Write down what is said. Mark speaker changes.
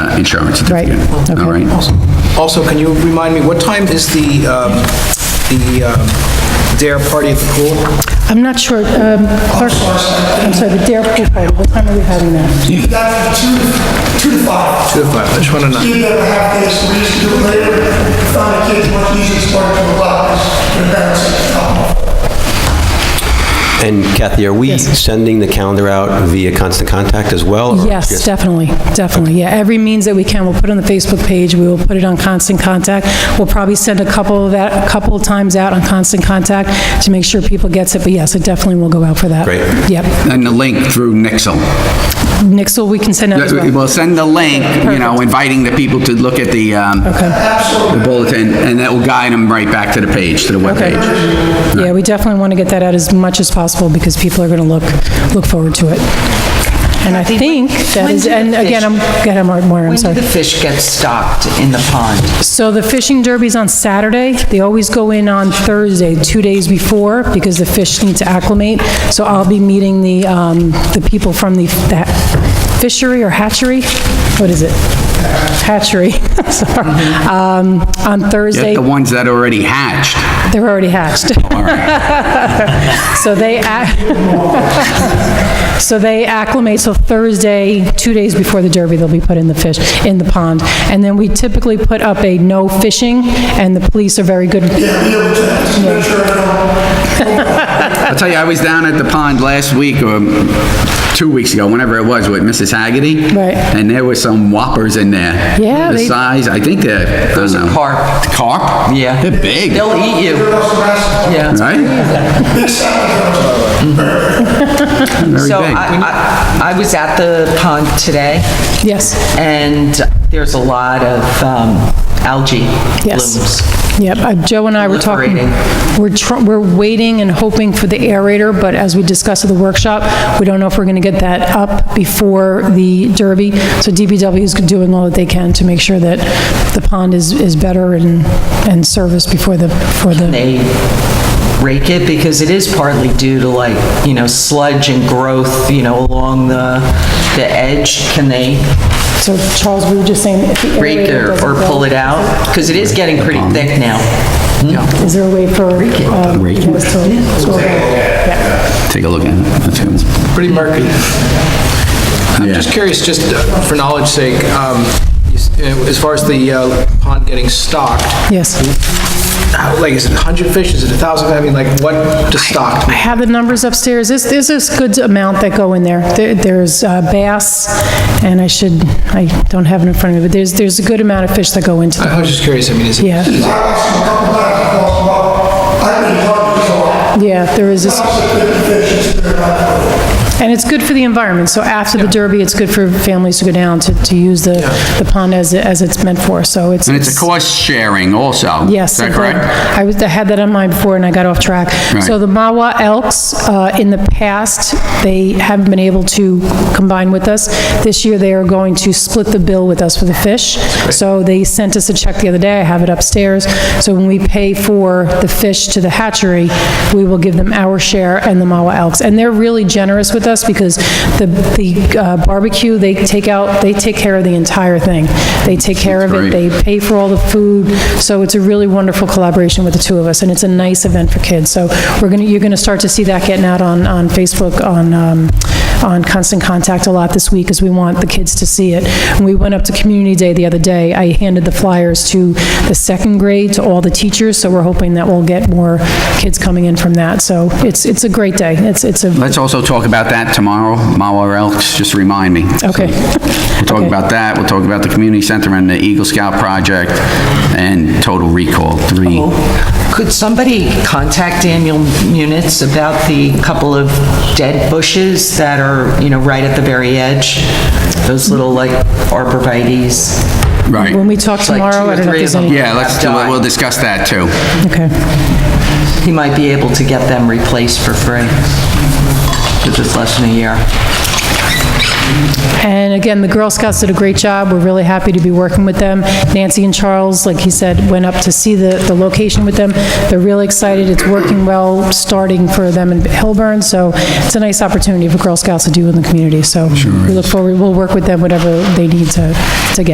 Speaker 1: uh, insurance
Speaker 2: Right,
Speaker 1: certificate.
Speaker 2: okay.
Speaker 1: All right?
Speaker 3: Also, can you remind me, what time is the, um, the um, Dare Party at the Pool?
Speaker 2: I'm not sure, um, Clark, I'm sorry, the Dare Pool Party, what time are we having that?
Speaker 4: That's two, two to five.
Speaker 3: Two to five, I just wanna know.
Speaker 4: Either a half day, so we used to do it later, found the kids much easier to start from the lockers, their parents, um,
Speaker 5: And Kathy, are we sending the calendar out via constant contact as well? or
Speaker 2: Yes,
Speaker 5: just-
Speaker 2: definitely, definitely, yeah, every means that we can, we'll put it on the Facebook page, we will put it on Constant Contact, we'll probably send a couple of that, a couple of times out on Constant Contact to make sure people gets it, but yes, it definitely will go out for that.
Speaker 5: Great.
Speaker 2: Yep,
Speaker 1: And the link through Nixle.
Speaker 2: Nixle, we can send out as well.
Speaker 1: We'll send the link, you know, inviting the people to look at the, um,
Speaker 2: Okay,
Speaker 1: the bulletin, and that will guide them right back to the page, to the
Speaker 2: okay.
Speaker 1: webpage.
Speaker 2: Yeah, we definitely want to get that out as much as possible, because people are going to look, look forward to it. And I think that
Speaker 6: When
Speaker 2: is,
Speaker 6: do the
Speaker 2: and again,
Speaker 6: fish-
Speaker 2: I'm, go ahead, Mar- Maureen, I'm
Speaker 6: When do
Speaker 2: sorry.
Speaker 6: the fish get stocked in the pond?
Speaker 2: So the fishing derby's on Saturday. They always go in on Thursday, two days before, because the fish need to acclimate. So I'll be meeting the, um, the people from the that fishery or hatchery? What is it? Hatchery, sorry. Um, on Thursday,
Speaker 1: Get the ones that already hatched.
Speaker 2: they're already hatched.
Speaker 1: All right.
Speaker 2: So they, ac- so they acclimate, so Thursday, two days before the Derby, they'll be put in the fish, in the pond. And then we typically put up a no fishing, and the police are very good.
Speaker 4: be able to just make sure they don't
Speaker 1: I'll tell you, I was down at the pond last week, or two weeks ago, whenever it was, with Mrs. Haggerty.
Speaker 2: Right.
Speaker 1: And there were some whoppers in there.
Speaker 2: Yeah,
Speaker 1: The
Speaker 2: they-
Speaker 1: size, I think they're, I don't know.
Speaker 6: carp.
Speaker 1: Carp?
Speaker 6: Yeah.
Speaker 1: They're big,
Speaker 6: They'll eat you,
Speaker 4: cross the rest.
Speaker 6: yeah.
Speaker 1: right?
Speaker 4: Big salad girls.
Speaker 1: Very
Speaker 6: So
Speaker 1: big.
Speaker 6: I, I I was at the pond today,
Speaker 2: Yes,
Speaker 6: and there's a lot of um, algae
Speaker 2: Yes.
Speaker 6: blooms.
Speaker 2: yep. Uh, Joe and I were talking, we're, tr- we're waiting and hoping for the aerator, but as we discussed at the workshop, we don't know if we're going to get that up before the Derby. So DPW is doing all that they can to make sure that the pond is, is better and, and serviced before the, for the...
Speaker 6: They rake it because it is partly due to like, you know, sludge and growth, you know, along the, the edge. Can they
Speaker 2: So Charles, we were just saying if the
Speaker 6: rake
Speaker 2: aerator
Speaker 6: or, or
Speaker 2: doesn't
Speaker 6: pull
Speaker 2: go,
Speaker 6: it out? Because it is getting pretty thick now.
Speaker 2: is there a way for... uh, Rake
Speaker 1: Rake it. Take a look at it. That's good.
Speaker 3: Pretty murky. I'm
Speaker 1: Yeah.
Speaker 3: just curious, just uh, for knowledge sake, um, you s- uh, as far as the uh, pond getting stocked,
Speaker 2: Yes.
Speaker 3: how- like, is it 100 fish, is it 1,000? I mean, like, what does stocked
Speaker 2: I
Speaker 3: mean?
Speaker 2: have the numbers upstairs. There's, there's this good amount that go in there. There- There's uh, bass, and I should, I don't have it in front of me, but there's, there's a good amount of fish that go into the...
Speaker 3: I was just curious, I mean, is it?
Speaker 2: Yeah,
Speaker 4: I lost a couple of times, I lost them all. I've been hard to go.
Speaker 2: yeah, there is this...
Speaker 4: Fifty fish, it's been around.
Speaker 2: And it's good for the environment, so after the Derby, it's good for families to go down to, to use the, the pond as, it- as it's meant for, so it's...
Speaker 1: And it's a cost sharing also.
Speaker 2: Yes.
Speaker 1: Is that
Speaker 2: I've
Speaker 1: correct?
Speaker 2: heard- I was, I had that on mind before and I got off track. So
Speaker 1: Right.
Speaker 2: the Mawa Elks, uh, in the past, they haven't been able to combine with us. This year, they are going to split the bill with us for the fish. So they sent us a check the other day, I have it upstairs. So when we pay for the fish to the hatchery, we will give them our share and the Mawa Elks. And they're really generous with us because the the uh, barbecue, they take out, they take care of the entire thing. They take care of
Speaker 1: great.
Speaker 2: it, they pay for all the food, so it's a really wonderful collaboration with the two of us, and it's a nice event for kids. So we're going to, you're going to start to see that getting out on, on Facebook, on, um, on Constant Contact a lot this week, because we want the kids to see it. And we went up to Community Day the other day, I handed the flyers to the second grade, to all the teachers, so we're hoping that we'll get more kids coming in from that. So it's, it's a great day, it's, it's a,
Speaker 1: Let's also talk about that tomorrow, Mawa Elks, just remind me.
Speaker 2: okay.
Speaker 1: We'll talk
Speaker 2: Okay.
Speaker 1: about that, we'll talk about the community center and the Eagle Scout project, and total recall, three.
Speaker 6: Could somebody contact Daniel Munitz about the couple of dead bushes that are, you know, right at the very edge? Those little, like, arborvitae's.
Speaker 2: When
Speaker 1: Right.
Speaker 2: we talk
Speaker 6: like
Speaker 2: tomorrow,
Speaker 6: two
Speaker 2: I don't
Speaker 6: or
Speaker 2: know if
Speaker 6: three
Speaker 2: there's
Speaker 6: of
Speaker 2: any,
Speaker 6: them.
Speaker 1: Yeah, let's, do- we'll discuss that too.
Speaker 2: okay.
Speaker 6: He might be able to get them replaced for free, because it's less than a year.
Speaker 2: And again, the Girl Scouts did a great job. We're really happy to be working with them. Nancy and Charles, like he said, went up to see the, the location with them. They're really excited. It's working well, starting for them in Hilburn, so it's a nice opportunity for Girl Scouts to do in the community. So we look forward, we'll work with them, whatever they need to, to get.